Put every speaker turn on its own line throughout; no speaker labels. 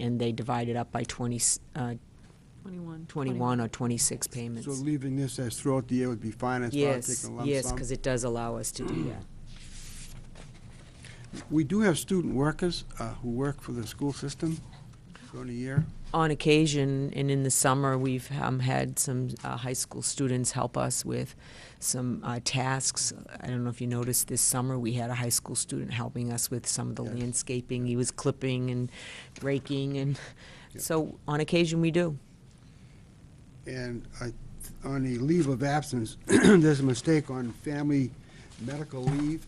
and they divide it up by 20, uh,
21.
21 or 26
So
payments.
leaving this as throughout the year would be fine as far as
Yes,
taking a lump sum? Mm.
yes, because it does allow us to do that.
We do have student workers uh, who work for the school system during the year.
On occasion, and in the summer, we've um, had some uh, high school students help us with some uh, tasks. I don't know if you noticed, this summer, we had a high school student helping us with some of the
Yes.
landscaping. He was clipping and raking, and
Yep.
so on occasion, we do.
And I- on the leave of absence, there's a mistake on family medical leave.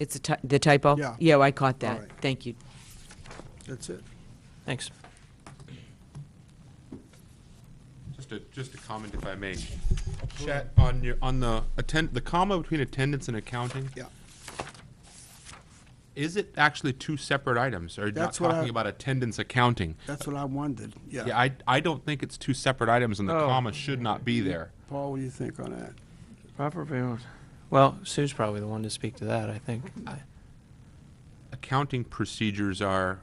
It's a ty- the typo?
Yeah.
Yeah, I caught that.
right.
Thank you.
That's it.
Thanks.
Just a, just a comment if I may. Chat, on your, on the attend, the comma between attendance and accounting,
Yeah.
is it actually two separate items? Or not
That's what I-
talking about attendance accounting?
That's what I wondered.
Yeah, I, I don't think it's two separate items and the
Oh.
comma should not be there.
Paul, what do you think on that?
Proper bound. Well, Sue's probably the one to speak to that, I think.
Accounting procedures are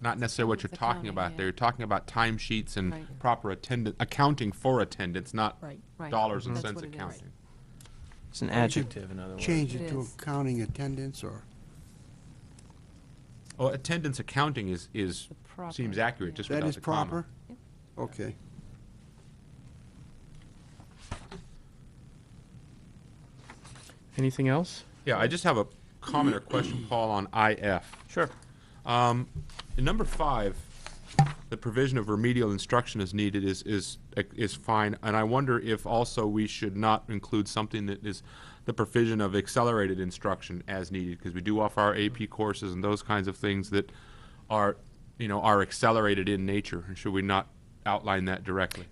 not necessarily what you're
It's
talking about
accounting,
there. You're talking about timesheets and
Right.
proper attendance, accounting for attendance, not
Right.
Right.
dollars and
That's
cents
what it is.
accounting.
It's an adjective, in other words.
Change
It
it to
is.
accounting attendance or?
Oh, attendance accounting is, is,
The proper-
seems accurate
yeah.
just
That
without
is
the comma.
proper? Okay.
Anything else?
Yeah, I just have a comment or question, Paul, on IF.
Sure.
Um, in number five, the provision of remedial instruction is needed is, is, is fine, and I wonder if also we should not include something that is the provision of accelerated instruction as needed, because we do offer our AP courses and those kinds of things that are, you know, are accelerated in nature, and should we not outline that directly?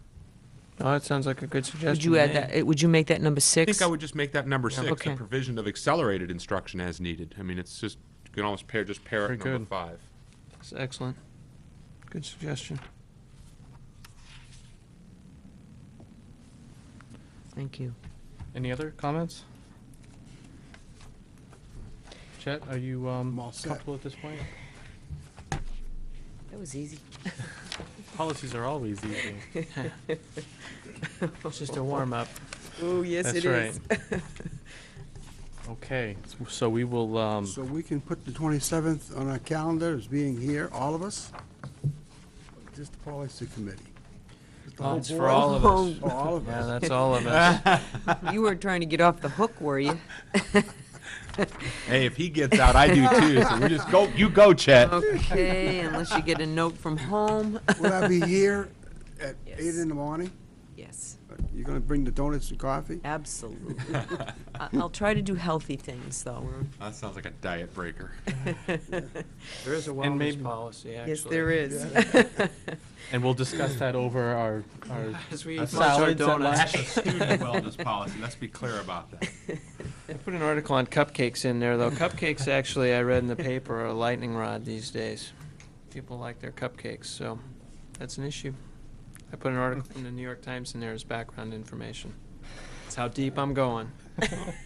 Oh, that sounds like a good suggestion.
Would you
to
add
me.
that, eh, would you make that number
I
six?
think I would just make that number six,
Okay.
the provision of accelerated instruction as needed. I mean, it's just, you can almost pair, just pair it
Very
number
good.
five.
It's excellent. Good suggestion.
Thank you.
Any other comments? Chet, are you um,
I'm all set.
comfortable at this point?
That was easy.
Policies are always easy. It's just a warm-up.
Oh, yes,
That's
it is.
Okay, s- so we will, um,
So we can put the 27th on our calendar as being here, all of us? Just the policy committee? Just the whole
Uh, it's for
board?
all of us.
For oh, all of
Yeah,
us?
that's all of us.
You weren't trying to get off the hook, were you?
Hey, if he gets out, I do too. So we just go. You go, Chet.
Okay, unless you get a note from home.
Will I be here at
Yes.
eight in the morning?
Yes,
You're gonna bring the donuts and coffee?
absolutely. I- I'll try to do healthy things, though.
That sounds like a diet breaker.
There is a
And maybe policy, actually.
Yes, there is.
And we'll discuss that over our, our uh,
As we
That's not- Salads at
That's a student wellness policy. Let's be clear about that.
I put an article on cupcakes in there, though. Cupcakes, actually, I read in the paper, are a lightning rod these days. People like their cupcakes, so that's an issue. I put an article from the New York Times in there as background information. That's how deep I'm going.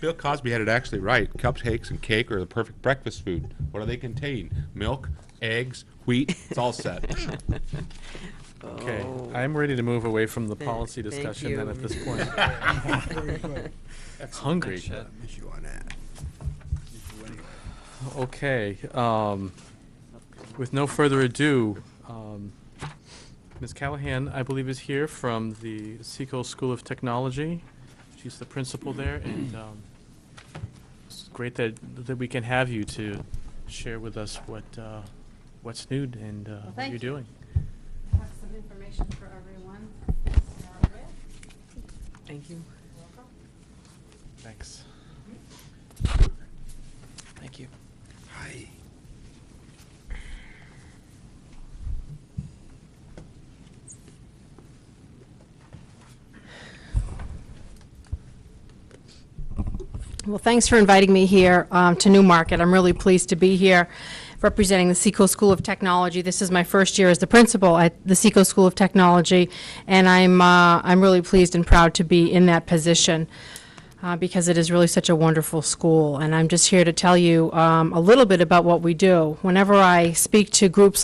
Bill Cosby had it actually right. Cupcakes and cake are the perfect breakfast food. What do they contain? Milk, eggs, wheat. It's all set.
Okay,
Oh.
I'm ready to move away from the
Thank-
policy
thank
discussion then
you.
at this point.
Very good.
Hungry.
Chet.
Miss you on that.
Okay, um, with no further ado, um, Ms. Callahan, I believe, is here from the Seco School of Technology. She's the principal there, and um, it's great that, that we can have you to share with us what, uh, what's new and uh, what
thank
you're
you.
doing.
have some information for everyone. to start with.
Thank you.
Thanks.
Thank you.
Hi.
Well, thanks for inviting me here um, to Newmarket. I'm really pleased to be here representing the Seco School of Technology. This is my first year as the principal at the Seco School of Technology, and I'm, uh, I'm really pleased and proud to be in that position uh, because it is really such a wonderful school. And I'm just here to tell you um, a little bit about what we do. Whenever I speak to groups